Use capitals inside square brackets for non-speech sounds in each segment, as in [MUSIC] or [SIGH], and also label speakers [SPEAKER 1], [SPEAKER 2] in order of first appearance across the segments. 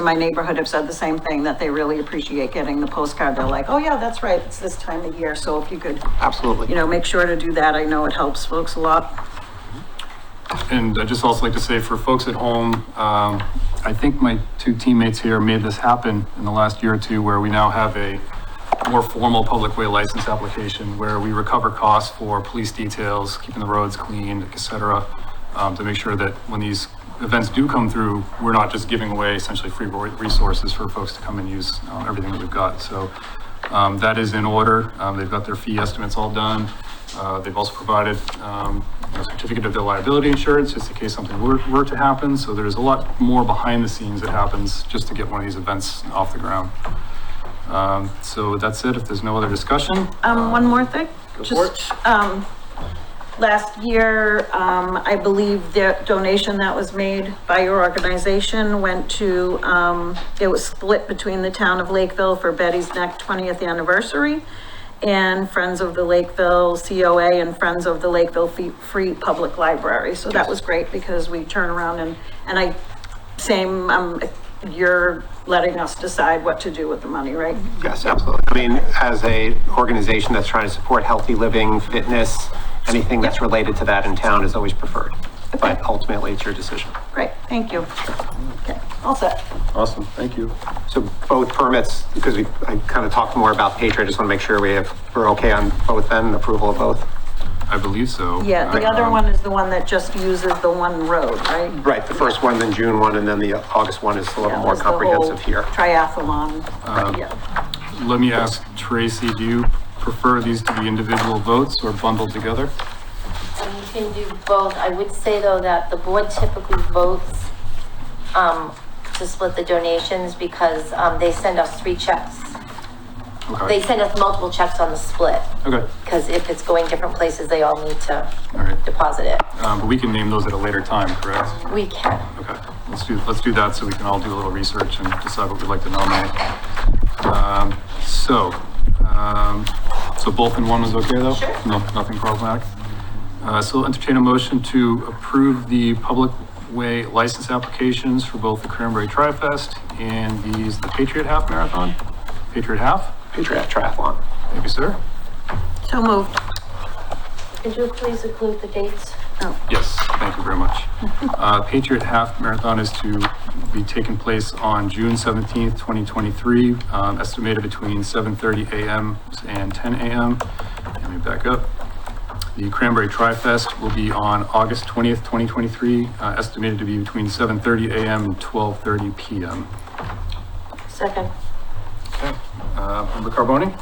[SPEAKER 1] in my neighborhood have said the same thing, that they really appreciate getting the postcard. They're like, oh yeah, that's right, it's this time of year, so if you could, you
[SPEAKER 2] Absolutely.
[SPEAKER 1] know, make sure to do that, I know it helps folks a lot.
[SPEAKER 3] And I'd just also like to say for folks at home, um, I think my two teammates here made this happen in the last year or two where we now have a more formal public way license application where we recover costs for police details, keeping the roads clean, et cetera, um, to make sure that when these events do come through, we're not just giving away essentially free re- resources for folks to come and use, um, everything that we've got. So, um, that is in order. Um, they've got their fee estimates all done. Uh, they've also provided, um, a certificate of their liability insurance, just in case something were, were to happen. So there's a lot more behind the scenes that happens just to get one of these events off the ground. Um, so that's it. If there's no other discussion.
[SPEAKER 1] Um, one more thing,
[SPEAKER 3] Go for it.
[SPEAKER 1] just, um, last year, um, I believe the donation that was made by your organization went to, um, it was split between the town of Lakeville for Betty's Neck twentieth anniversary and Friends of the Lakeville COA and Friends of the Lakeville Fe- Free Public Library. So that was great because we turn around and, and I, same, um, you're letting us decide what to do with the money, right?
[SPEAKER 2] Yes, absolutely. I mean, as a organization that's trying to support healthy living, fitness, anything that's related to that in town is always preferred. But ultimately, it's your decision.
[SPEAKER 1] Great, thank you. Okay, all set.
[SPEAKER 3] Awesome. Thank you.
[SPEAKER 2] So both permits, because we, I kind of talked more about Patriot, I just want to make sure we have, we're okay on both then, approval of both.
[SPEAKER 3] I believe so.
[SPEAKER 1] Yeah, the
[SPEAKER 3] I-
[SPEAKER 1] other
[SPEAKER 3] um,
[SPEAKER 1] one is the one that just uses the one road, right?
[SPEAKER 2] Right, the first one, then June one, and then the August one is a little
[SPEAKER 1] That
[SPEAKER 2] more
[SPEAKER 1] was the whole
[SPEAKER 2] comprehensive here.
[SPEAKER 1] Triathlon, yeah.
[SPEAKER 3] um, Let me ask Tracy, do you prefer these to be individual votes or bundled together?
[SPEAKER 4] You can do both. I would say though that the board typically votes um, to split the donations because um, they send us three checks. They
[SPEAKER 3] Okay.
[SPEAKER 4] send us multiple checks on the split
[SPEAKER 3] Okay.
[SPEAKER 4] because if it's going different places, they all need to
[SPEAKER 3] All right.
[SPEAKER 4] deposit it.
[SPEAKER 3] Um, but we can name those at a later time, correct?
[SPEAKER 4] We can.
[SPEAKER 3] Okay, let's do, let's do that so we can all do a little research and decide what we'd like to nominate. Um, so, um, so both in one is okay though?
[SPEAKER 4] Sure.
[SPEAKER 3] No, nothing problematic. Uh, so entertain a motion to approve the public way license applications for both the Cranberry Tri-Fest and these, the Patriot Half Marathon? Patriot Half?
[SPEAKER 2] Patriot Triathlon.
[SPEAKER 3] Thank you, sir.
[SPEAKER 1] So moved.
[SPEAKER 4] Could you please include the dates?
[SPEAKER 3] Yes, thank you
[SPEAKER 1] [LAUGHS]
[SPEAKER 3] very much. Uh, Patriot Half Marathon is to be taking place on June seventeenth, twenty twenty-three, um, estimated between seven thirty AM and ten AM. Let me back up. The Cranberry Tri-Fest will be on August twentieth, twenty twenty-three, uh, estimated to be between seven thirty AM and twelve thirty PM.
[SPEAKER 4] Second.
[SPEAKER 3] Okay, uh, member Carboni,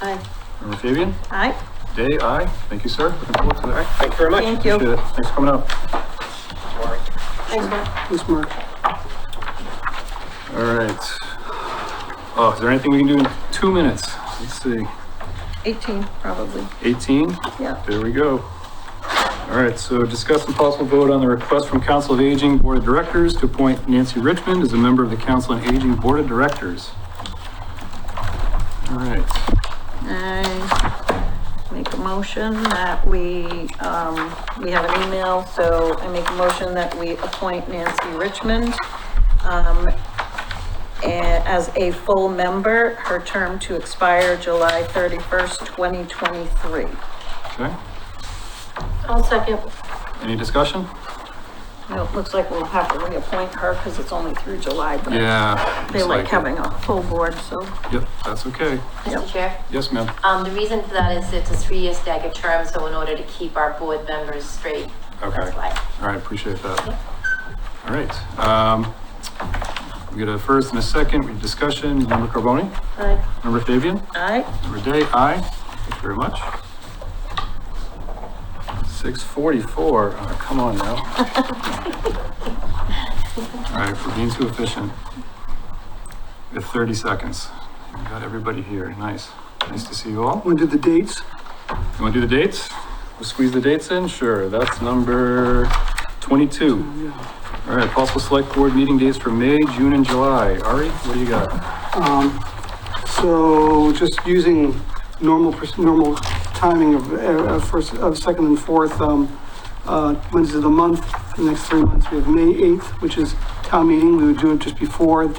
[SPEAKER 4] Aye.
[SPEAKER 3] member Fabian,
[SPEAKER 1] All right,
[SPEAKER 3] Day, aye. Thank you, sir. Looking forward to that.
[SPEAKER 2] Thank you very much.
[SPEAKER 1] thank
[SPEAKER 3] Appreciate
[SPEAKER 1] you.
[SPEAKER 3] it. Thanks for coming up.
[SPEAKER 1] Thanks, Mark.
[SPEAKER 3] All right. Oh, is there anything we can do in two minutes? Let's see,
[SPEAKER 1] 18, probably,
[SPEAKER 3] 18?
[SPEAKER 1] yeah.
[SPEAKER 3] There we go. All right, so discuss and possible vote on the request from Council of Aging Board of Directors to appoint Nancy Richmond as a member of the Council on Aging Board of Directors. All right,
[SPEAKER 1] I make a motion that we, um, we have an email, so I make a motion that we appoint Nancy Richmond, um, a- as a full member, her term to expire July thirty-first, twenty twenty-three.
[SPEAKER 3] okay.
[SPEAKER 4] I'll second.
[SPEAKER 3] Any discussion?
[SPEAKER 1] You know, it looks like we'll have to reappoint her because it's only through July, but
[SPEAKER 3] Yeah.
[SPEAKER 1] they like having a full board, so.
[SPEAKER 3] Yep, that's okay.
[SPEAKER 4] Mr. Chair?
[SPEAKER 3] Yes, ma'am.
[SPEAKER 4] Um, the reason for that is it's a three-year staggered term, so in order to keep our board members straight.
[SPEAKER 3] Okay.
[SPEAKER 4] That's why.
[SPEAKER 3] All right, appreciate that. All right, um, we got a first and a second, we have discussion, member Carboni,
[SPEAKER 4] Aye.
[SPEAKER 3] member Fabian,
[SPEAKER 1] Aye,
[SPEAKER 3] member Day, aye. Thank you very much. Six forty-four, oh, come on now. All right, we're being too efficient. We have thirty seconds. We got everybody here, nice. Nice to see you all.
[SPEAKER 5] Want to do the dates?
[SPEAKER 3] You wanna do the dates? We'll squeeze the dates in, sure, that's number twenty-two. All right, possible select board meeting dates for May, June, and July. Ari, what do you got?
[SPEAKER 5] So just using normal, pers- normal timing of, uh, of first, of second and fourth, um, uh, Wednesdays of the month, for the next three months, we have May 8th, which is town meeting, we would do it just before the